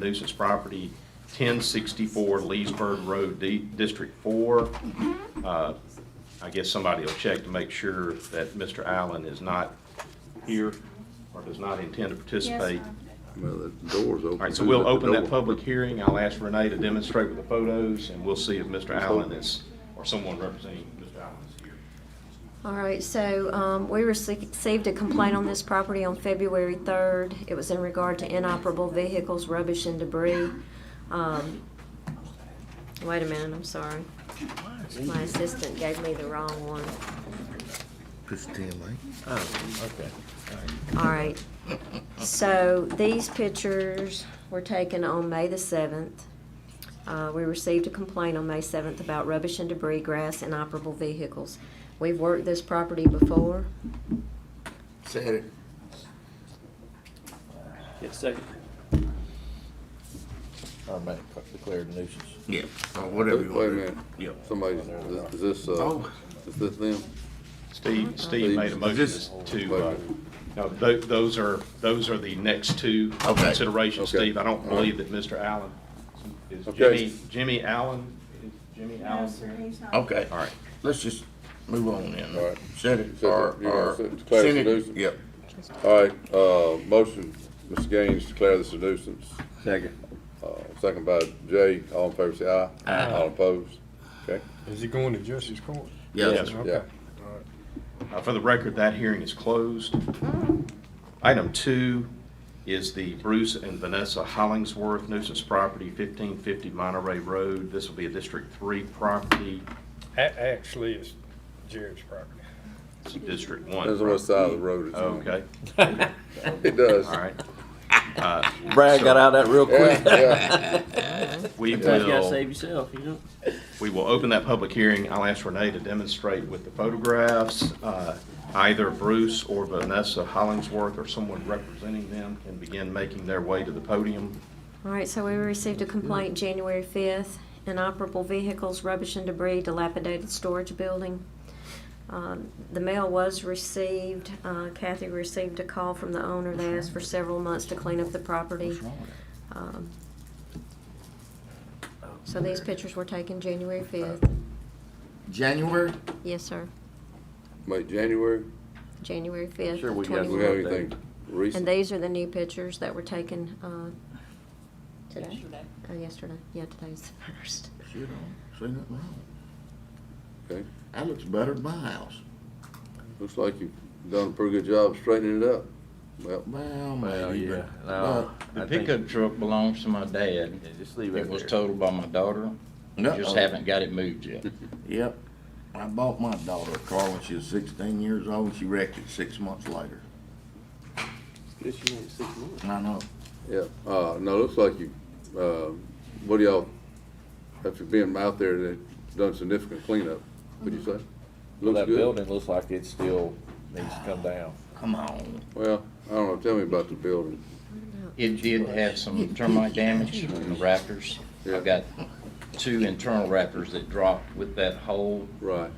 nuisance property, 1064 Leesburg Road, D- District 4. Uh, I guess somebody will check to make sure that Mr. Allen is not here or does not intend to participate. Well, the door's open. All right, so we'll open that public hearing. I'll ask Renee to demonstrate with the photos, and we'll see if Mr. Allen is, or someone representing Mr. Allen is here. All right, so um, we received a complaint on this property on February 3rd. It was in regard to inoperable vehicles, rubbish, and debris. Um, Wait a minute, I'm sorry. My assistant gave me the wrong one. Push the TMA. Oh, okay. All right, so these pictures were taken on May the 7th. Uh, We received a complaint on May 7th about rubbish and debris, grass, and operable vehicles. We've worked this property before. Said it. Yes, second. Or make, declared a nuisance. Yeah, or whatever Wait you a want. to do. minute, Yep. somebody's, is this, uh, Oh. is this them? Uh-huh. Steve, Steve made a This- motion to, uh, no, tho- those are, those are the next two Okay. considerations, Okay. Steve. I don't believe that Mr. Allen, is Okay. Jimmy, Jimmy Allen, is Jimmy No, Allen? sir, here? he's not. Okay. All right. Let's just move on then. All right. Set it Set or, it, yeah, or. set- declare it a send nuisance. Yep. All right, uh, motion, Mr. Gaines, declare this a nuisance. Second. Uh, second by Jay, all in favor, say aye. Aye. All opposed, okay? Is he going to justice court? Yeah. Yes, sir. Yeah. Okay. Uh, For the record, that hearing is closed. Mm-hmm. Item two is the Bruce and Vanessa Hollingsworth nuisance property, 1550 Monterey Road. This will be a District 3 property, A- actually, it's Jared's property. It's a District 1. Depends on what side of the road it's on. Okay, It does. all right. Uh, Brad got out of that real Yeah, quick. yeah, We will. Sometimes you gotta save yourself, you know? We will open that public hearing. I'll ask Renee to demonstrate with the photographs. Uh, Either Bruce or Vanessa Hollingsworth or someone representing them can begin making their way to the podium. All right, so we received a complaint January fifth, inoperable vehicles, rubbish and debris, dilapidated storage building. Um, The mail was received, Uh, Kathy received a call from the owner, they asked for several months to clean up the property. Um, So these pictures were taken January fifth, January? yes, sir, wait, January, January fifth, Sure, we got do we have twenty. anything And recent? these are the new pictures that were taken uh, today, Uh, yesterday, yeah, today's the first. Shit, I don't see nothing wrong. Okay, That looks better than my house. looks like you've done a pretty good job straightening it up. Well, Well, Well, maybe, yeah. but- No, The I think- pickup truck belongs to my dad. Yeah, Just leave It it was there. totaled by my daughter. No. Just haven't got it moved yet. Yep. I bought my daughter a car when she was sixteen years old, and she wrecked it six months later. This you want six months. I know. Yeah, uh, no, it looks like you, uh, what do y'all, after being out there, they done significant cleanup, would you say? Mm-hmm. Well, Looks that good? building looks like it still needs to come down. Come on. Well, I don't know, tell me about the building. It did have some termite damage in the rafters. Yeah. I've got two internal rafters that dropped with that hole. Right,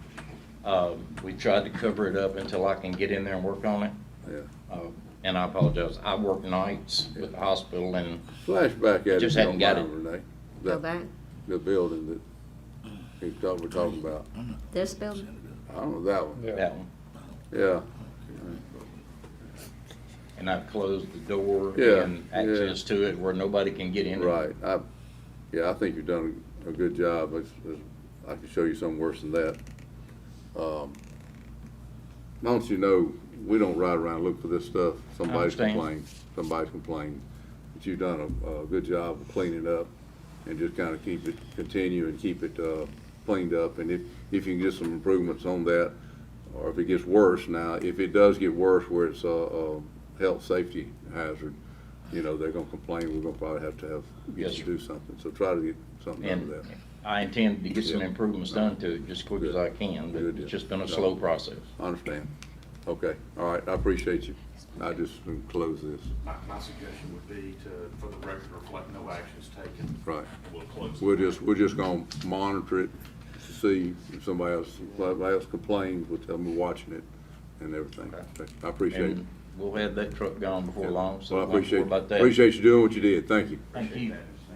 Um, We tried to cover it up until I can get in there and work on it. yeah. Uh, And I apologize. I work nights with the hospital and Flashback at it. Just if you hadn't don't got mind, Renee. Go That- back, The building that he thought we're talking about. this building? I don't know that one. Yeah. that one. Yeah, And I've closed the door Yeah, and yeah. access to it where nobody can get in. and right. I, yeah, I think you've done a good job. It's- it's- I can show you something worse than that. Um, Don't you know, we don't ride around and look for this stuff. Somebody's understand. complained, somebody's complained. But you've done a, a good job of cleaning up and just kind of keep it, continue and keep it, uh, cleaned up. And if, if you can get some improvements on that, or if it gets worse now, if it does get worse where it's a, a health, safety hazard, you know, they're gonna complain, we're gonna probably have to have, get Yes, to sir. do something. So try to get something out of And that. I intend to get some Yeah. improvements done to it just quick as I can, but Good deal. it's just been a slow process. I understand. Okay, all right, I appreciate you. I just close this. My, my suggestion would be to, for the record, reflect no actions taken. Right. And we'll close. We're just, we're just gonna monitor it to see if somebody else, if somebody else complains, we'll tell them we're watching it and everything. I appreciate it. And We'll have that truck gone before long, so Well, I don't worry appreciate, about that. appreciate you doing what you did. Thank you. Thank you.